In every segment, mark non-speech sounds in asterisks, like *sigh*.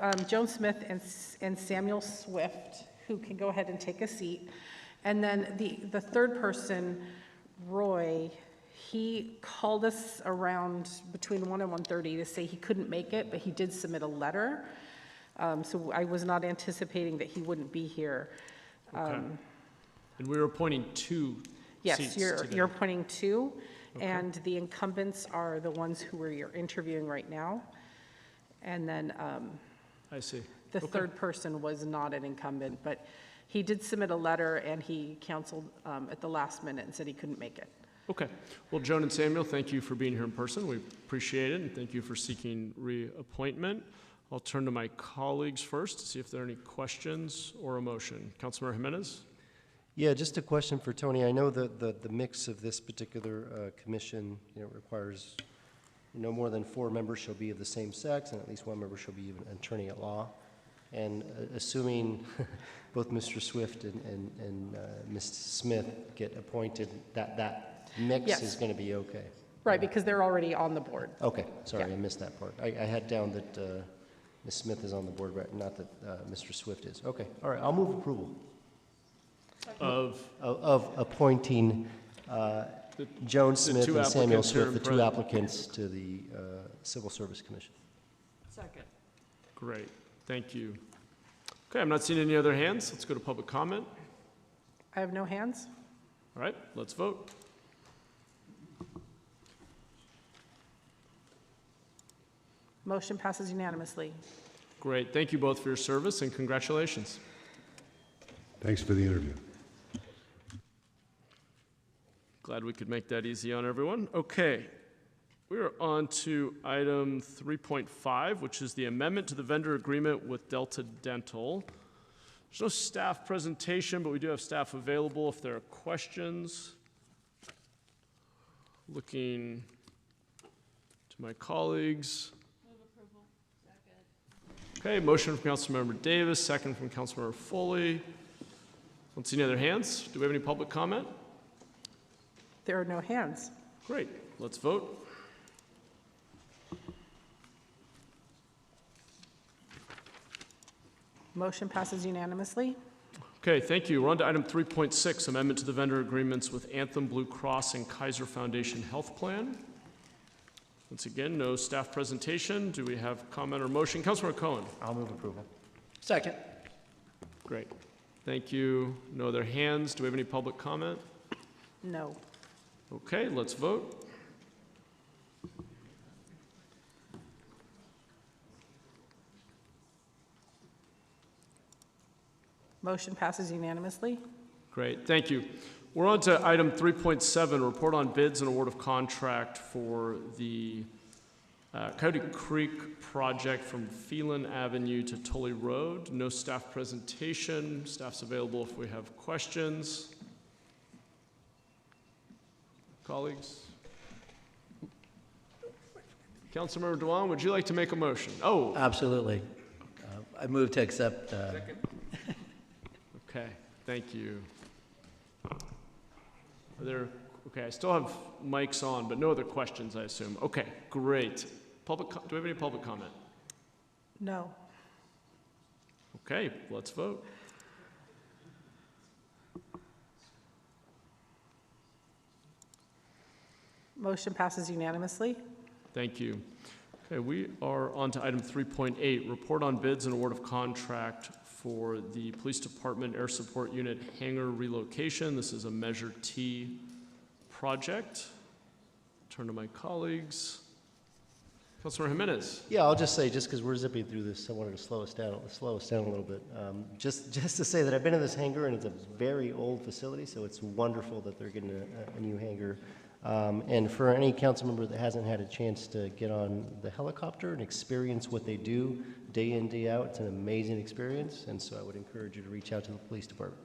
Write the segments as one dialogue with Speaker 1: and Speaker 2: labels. Speaker 1: um, Joan Smith and S- and Samuel Swift, who can go ahead and take a seat. And then the, the third person, Roy, he called us around between 1 and 1:30 to say he couldn't make it, but he did submit a letter. Um, So I was not anticipating that he wouldn't be here.
Speaker 2: Okay. And we were appointing two seats
Speaker 1: Um, Yes, you're, you're
Speaker 2: today.
Speaker 1: appointing two, and the incumbents are the ones who are, you're interviewing right now. And then um,
Speaker 2: I see.
Speaker 1: the
Speaker 2: Okay.
Speaker 1: third person was not an incumbent, but he did submit a letter, and he canceled um, at the last minute and said he couldn't make it.
Speaker 2: Okay. Well, Joan and Samuel, thank you for being here in person. We appreciate it, and thank you for seeking reappointment. I'll turn to my colleagues first to see if there are any questions or a motion. Councilmember Jimenez?
Speaker 3: Yeah, just a question for Tony. I know that the, the mix of this particular uh, commission, you know, requires no more than four members shall be of the same sex, and at least one member shall be an attorney at law. And uh, assuming *laughs* both Mr. Swift and, and, and uh, Ms. Smith get appointed, that, that mix
Speaker 1: Yes.
Speaker 3: is going to be okay?
Speaker 1: Right, because they're already on the board.
Speaker 3: Okay, sorry,
Speaker 1: Yeah.
Speaker 3: I missed that part. I, I had down that uh, Ms. Smith is on the board, right? Not that uh, Mr. Swift is. Okay, all right, I'll move approval.
Speaker 2: Of,
Speaker 3: of- of appointing uh,
Speaker 2: The-
Speaker 3: Joan
Speaker 2: the
Speaker 3: Smith
Speaker 2: two
Speaker 3: and Samuel
Speaker 2: applicants who are
Speaker 3: Swift, the
Speaker 2: in
Speaker 3: two
Speaker 2: front.
Speaker 3: applicants, to the uh, Civil Service Commission.
Speaker 2: great, thank you. Okay, I'm not seeing any other hands. Let's go to public comment.
Speaker 1: I have no hands.
Speaker 2: All right, let's vote.
Speaker 1: Motion passes unanimously.
Speaker 2: Great, thank you both for your service, and congratulations.
Speaker 4: Thanks for the interview.
Speaker 2: Glad we could make that easy on everyone. Okay. We are on to item 3.5, which is the amendment to the vendor agreement with Delta Dental. There's no staff presentation, but we do have staff available if there are questions. Looking to my colleagues. Okay, motion from Councilmember Davis, second from Councilmember Foley. Don't see any other hands. Do we have any public comment?
Speaker 1: There are no hands.
Speaker 2: Great, let's vote.
Speaker 1: Motion passes unanimously.
Speaker 2: Okay, thank you. We're on to item 3.6, amendment to the vendor agreements with Anthem Blue Cross and Kaiser Foundation Health Plan. Once again, no staff presentation. Do we have comment or motion? Councilmember Cohen?
Speaker 3: I'll move approval.
Speaker 5: Second.
Speaker 2: Great. Thank you. No other hands. Do we have any public comment?
Speaker 1: No.
Speaker 2: Okay, let's vote.
Speaker 1: Motion passes unanimously.
Speaker 2: Great, thank you. We're on to item 3.7, report on bids and award of contract for the uh, Coyote Creek project from Phelan Avenue to Tully Road. No staff presentation, staff's available if we have questions. Colleagues? Councilmember Dewan, would you like to make a motion? Oh,
Speaker 5: Absolutely. Uh, I move to accept, uh,
Speaker 2: okay, thank you. Are there, okay, I still have mics on, but no other questions, I assume. Okay, great. Public, co- do we have any public comment?
Speaker 1: No.
Speaker 2: Okay, let's vote.
Speaker 1: Motion passes unanimously.
Speaker 2: Thank you. Okay, we are on to item 3.8, report on bids and award of contract for the Police Department Air Support Unit hangar relocation. This is a Measure T project. Turn to my colleagues. Councilor Jimenez.
Speaker 3: Yeah, I'll just say, just because we're zipping through this, I wanted to slow us down, slow us down a little bit. Um, Just, just to say that I've been in this hangar, and it's a very old facility, so it's wonderful that they're getting a, a new hangar. Um, And for any council member that hasn't had a chance to get on the helicopter and experience what they do day in, day out, it's an amazing experience, and so I would encourage you to reach out to the police department.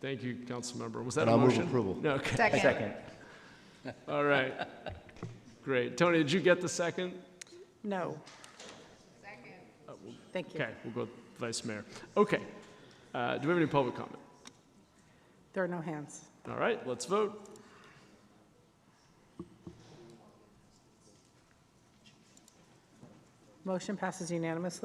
Speaker 2: Thank you, Councilmember. Was that
Speaker 3: And
Speaker 2: a
Speaker 3: I'll move
Speaker 2: motion?
Speaker 3: approval.
Speaker 2: No, okay. All right. Great. Tony, did you get the second?
Speaker 1: No. Thank you.
Speaker 2: Okay, we'll go with Vice Mayor. Okay. Uh, Do we have any public comment?
Speaker 1: There are no hands.
Speaker 2: All right, let's vote.
Speaker 1: Motion passes unanimously.